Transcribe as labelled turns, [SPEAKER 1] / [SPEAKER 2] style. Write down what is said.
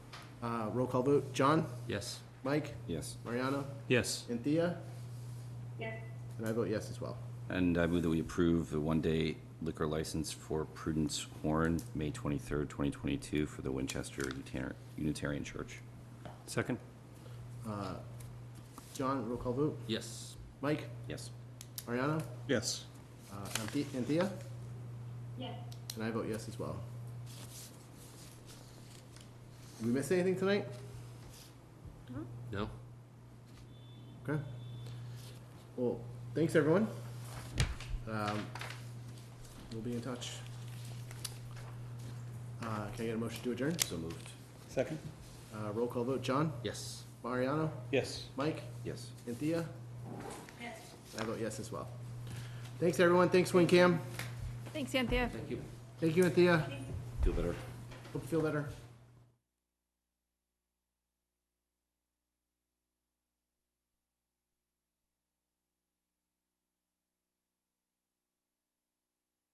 [SPEAKER 1] Uh, roll call vote, John,
[SPEAKER 2] Yes.
[SPEAKER 1] Mike,
[SPEAKER 3] Yes.
[SPEAKER 1] Mariano,
[SPEAKER 2] Yes.
[SPEAKER 1] and Thea,
[SPEAKER 4] yes,
[SPEAKER 1] and I vote yes as well.
[SPEAKER 3] And I move that we approve the one-day liquor license for Prudence Horn, May 23rd, 2022, for the Winchester Unitar- Unitarian Church.
[SPEAKER 2] Second?
[SPEAKER 1] Uh, John, roll call vote,
[SPEAKER 2] Yes.
[SPEAKER 1] Mike,
[SPEAKER 3] Yes.
[SPEAKER 1] Mariano,
[SPEAKER 5] yes,
[SPEAKER 1] uh, and Thea- and Thea,
[SPEAKER 4] yes.
[SPEAKER 1] and I vote yes as well. Did we miss anything tonight?
[SPEAKER 2] No?
[SPEAKER 1] Okay. Well, thanks, everyone. Um, We'll be in touch. Uh, Can I get a motion to adjourn?
[SPEAKER 3] So moved.
[SPEAKER 5] second,
[SPEAKER 1] Uh, Roll call vote, John,
[SPEAKER 2] Yes.
[SPEAKER 1] Mariano,
[SPEAKER 5] yes.
[SPEAKER 1] Mike,
[SPEAKER 3] Yes.
[SPEAKER 1] and Thea? Yes. I vote yes as well. Thanks, everyone. Thanks, WinCam.
[SPEAKER 6] Thanks, Cynthia.
[SPEAKER 2] Thank you.
[SPEAKER 1] Thank you, Anthea.
[SPEAKER 3] Feel better?
[SPEAKER 1] Hope you feel better.